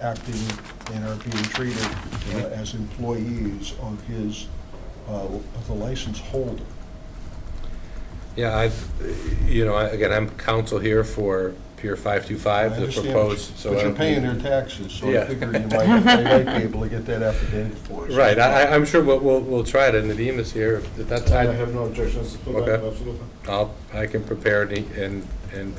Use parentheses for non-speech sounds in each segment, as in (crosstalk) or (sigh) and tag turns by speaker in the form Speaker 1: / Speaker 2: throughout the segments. Speaker 1: acting and are being treated uh, as employees of his, uh, of the license holder.
Speaker 2: Yeah, I've, you know, I- again, I'm counsel here for Pier
Speaker 1: I
Speaker 2: 525, the
Speaker 1: understand,
Speaker 2: proposed, so.
Speaker 1: But
Speaker 2: I
Speaker 1: you're
Speaker 2: don't-
Speaker 1: paying their taxes, so I
Speaker 2: Yeah.
Speaker 1: figure you might, they might be able to get that affidavit
Speaker 2: (laughs)
Speaker 1: for us.
Speaker 2: Right, I, I- I'm sure we'll, we'll, we'll try it, and Nadeem here, at that
Speaker 3: I
Speaker 2: time,
Speaker 3: have no objections to
Speaker 2: Okay.
Speaker 3: that, absolutely.
Speaker 2: I'll, I can prepare it and, and,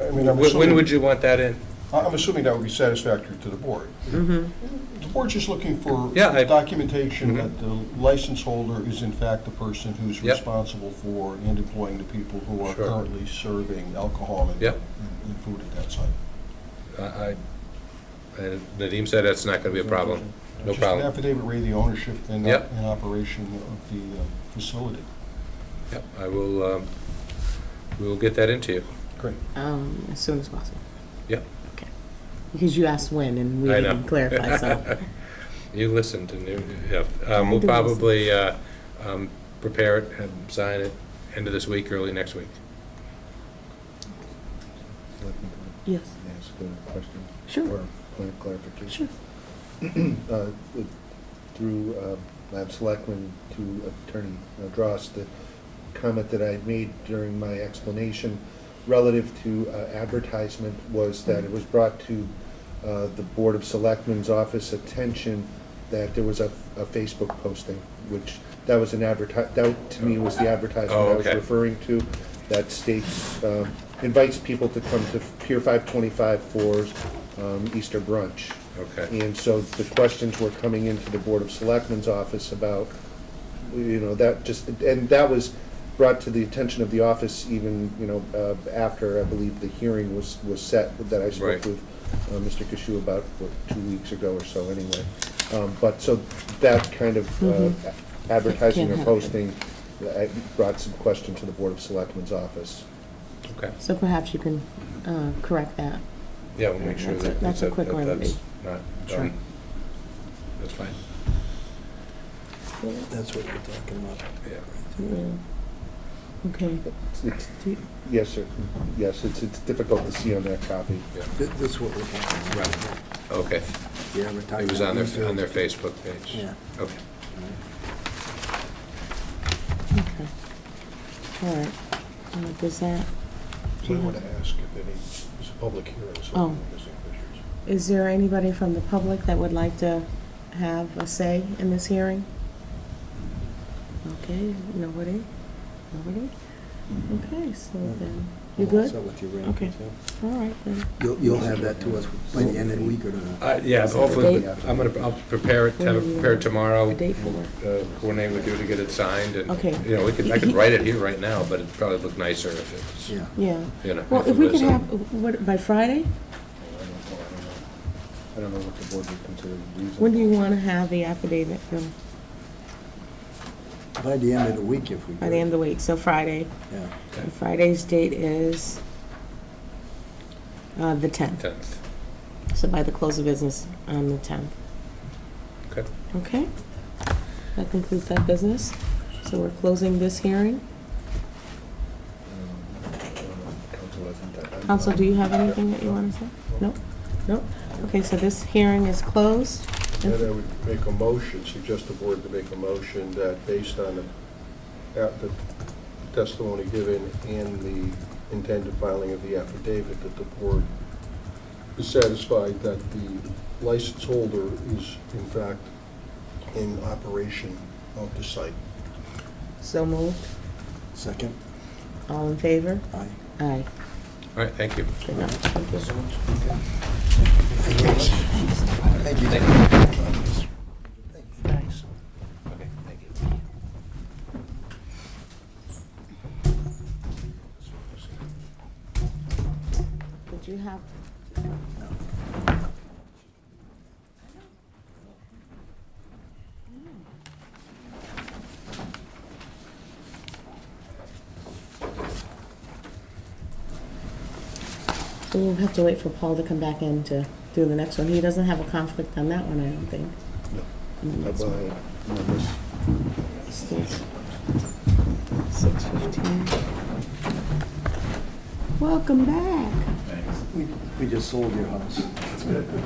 Speaker 1: I mean, I'm
Speaker 2: when when
Speaker 1: assuming-
Speaker 2: would you want that in?
Speaker 1: I- I'm assuming that would be satisfactory to the board. The board's just looking for
Speaker 2: Mm-hmm. Yeah, I-
Speaker 1: documentation
Speaker 2: Mhm.
Speaker 1: that the license holder is in fact the person who's
Speaker 2: Yep.
Speaker 1: responsible for and employing the people who are
Speaker 2: Sure.
Speaker 1: currently serving alcohol and
Speaker 2: Yep.
Speaker 1: and food at that site.
Speaker 2: I, I- and Nadeem said that's not gonna be a problem, no
Speaker 1: Just an
Speaker 2: problem.
Speaker 1: affidavit reading the ownership and,
Speaker 2: Yep.
Speaker 1: and operation of the uh, facility.
Speaker 2: Yep, I will, um, we will get that into you.
Speaker 1: Great.
Speaker 4: Um, as soon as possible.
Speaker 2: Yep.
Speaker 4: Okay. Because you asked when and we
Speaker 2: I
Speaker 4: didn't
Speaker 2: know. (laughs)
Speaker 4: clarify, so.
Speaker 2: You listened and you, yeah,
Speaker 4: I
Speaker 2: um, we'll
Speaker 4: did listen.
Speaker 2: probably, uh, um, prepare it and sign it end of this week, early next week.
Speaker 5: Let me
Speaker 4: Yes,
Speaker 5: ask a question.
Speaker 4: Sure.
Speaker 5: Or a point of clarification. Uh, with- Through uh, Lab Selectman to Attorney uh, Dross, the comment that I made during my explanation relative to uh, advertisement was that it was brought to uh, the Board of Selectmen's office attention that there was a a Facebook posting, which, that was an adverti, that to me was the advertisement
Speaker 2: Oh,
Speaker 5: I was
Speaker 2: okay.
Speaker 5: referring to, that states, um, invites people to come to Pier 525 for um, Easter brunch.
Speaker 2: Okay.
Speaker 5: And so the questions were coming into the Board of Selectmen's office about, you know, that just, and that was brought to the attention of the office even, you know, uh, after, I believe, the hearing was, was set, that I spoke
Speaker 2: Right.
Speaker 5: with uh, Mr. Kishu about, what, two weeks ago or so, anyway. Um, But, so that kind of uh,
Speaker 4: Mhm.
Speaker 5: advertising
Speaker 4: Can't
Speaker 5: or
Speaker 4: happen.
Speaker 5: posting, I brought some question to the Board of Selectmen's office.
Speaker 2: Okay.
Speaker 4: so perhaps you can, uh, correct that.
Speaker 2: Yeah, we'll make sure
Speaker 4: That's a-
Speaker 2: that.
Speaker 4: that's a
Speaker 2: that-
Speaker 4: quick
Speaker 2: that-
Speaker 4: remedy.
Speaker 2: that's Not done. That's fine.
Speaker 3: That's what you're talking about.
Speaker 2: Yeah.
Speaker 4: Okay.
Speaker 5: It's- it's-
Speaker 4: Do you-
Speaker 5: Yes, sir, yes, it's, it's difficult to see on that copy.
Speaker 3: That's what we're talking about.
Speaker 2: Right. Okay.
Speaker 3: The advertising.
Speaker 2: It was on their, on their Facebook page.
Speaker 3: Yeah.
Speaker 2: Okay.
Speaker 4: Okay. All right. Uh, does that,
Speaker 1: So I want to ask if any, it's a public hearing, so
Speaker 4: Oh.
Speaker 1: I'm missing pictures.
Speaker 4: is there anybody from the public that would like to have a say in this hearing? Okay, nobody? Nobody? Okay, so then, you good?
Speaker 3: So with your rent,
Speaker 4: Okay.
Speaker 3: so.
Speaker 4: All right, then.
Speaker 3: You'll, you'll have that to us by the end of the week or not?
Speaker 2: Uh, yeah,
Speaker 3: Is it
Speaker 2: hopefully,
Speaker 5: date?
Speaker 2: I'm gonna, I'll prepare it, have
Speaker 4: When do
Speaker 2: it
Speaker 4: you
Speaker 2: prepared
Speaker 4: want
Speaker 2: tomorrow.
Speaker 4: a date for it?
Speaker 2: We'll, uh, Coordinate with you to get it signed and,
Speaker 4: Okay.
Speaker 2: you know, we could, I could write it here right now, but it'd probably look nicer if it's,
Speaker 3: Yeah.
Speaker 4: Yeah.
Speaker 2: you know.
Speaker 4: Well,
Speaker 2: it
Speaker 4: if we
Speaker 2: was
Speaker 4: could
Speaker 2: a-
Speaker 4: have, what, by Friday?
Speaker 5: I don't know what the board would consider reasonable.
Speaker 4: When do you want to have the affidavit, Bill?
Speaker 3: By the end of the week if we.
Speaker 4: By the end of the week, so Friday.
Speaker 3: Yeah.
Speaker 2: Okay.
Speaker 4: Friday's date is uh, the 10th.
Speaker 2: Tenth.
Speaker 4: So by the close of business on the 10th.
Speaker 2: Okay.
Speaker 4: Okay? That concludes that business. So we're closing this hearing. Council, do you have anything that you want to say? No? No? Okay, so this hearing is closed.
Speaker 1: Then I would make a motion, suggest the board to make a motion that based on the- at the testimony given and the intended filing of the affidavit, that the board is satisfied that the license holder is in fact in operation of the site.
Speaker 4: So moved.
Speaker 3: Second,
Speaker 4: All in favor?
Speaker 3: aye.
Speaker 4: Aye.
Speaker 2: All right, thank you.
Speaker 4: Good night. Thank you.
Speaker 3: Thank you.
Speaker 4: Thanks.
Speaker 2: Okay, thank you.
Speaker 4: Did you have? So we'll have to wait for Paul to come back in to do the next one. He doesn't have a conflict on that one, I don't think. No. Six fifteen. Welcome back.
Speaker 3: We, we just sold your house.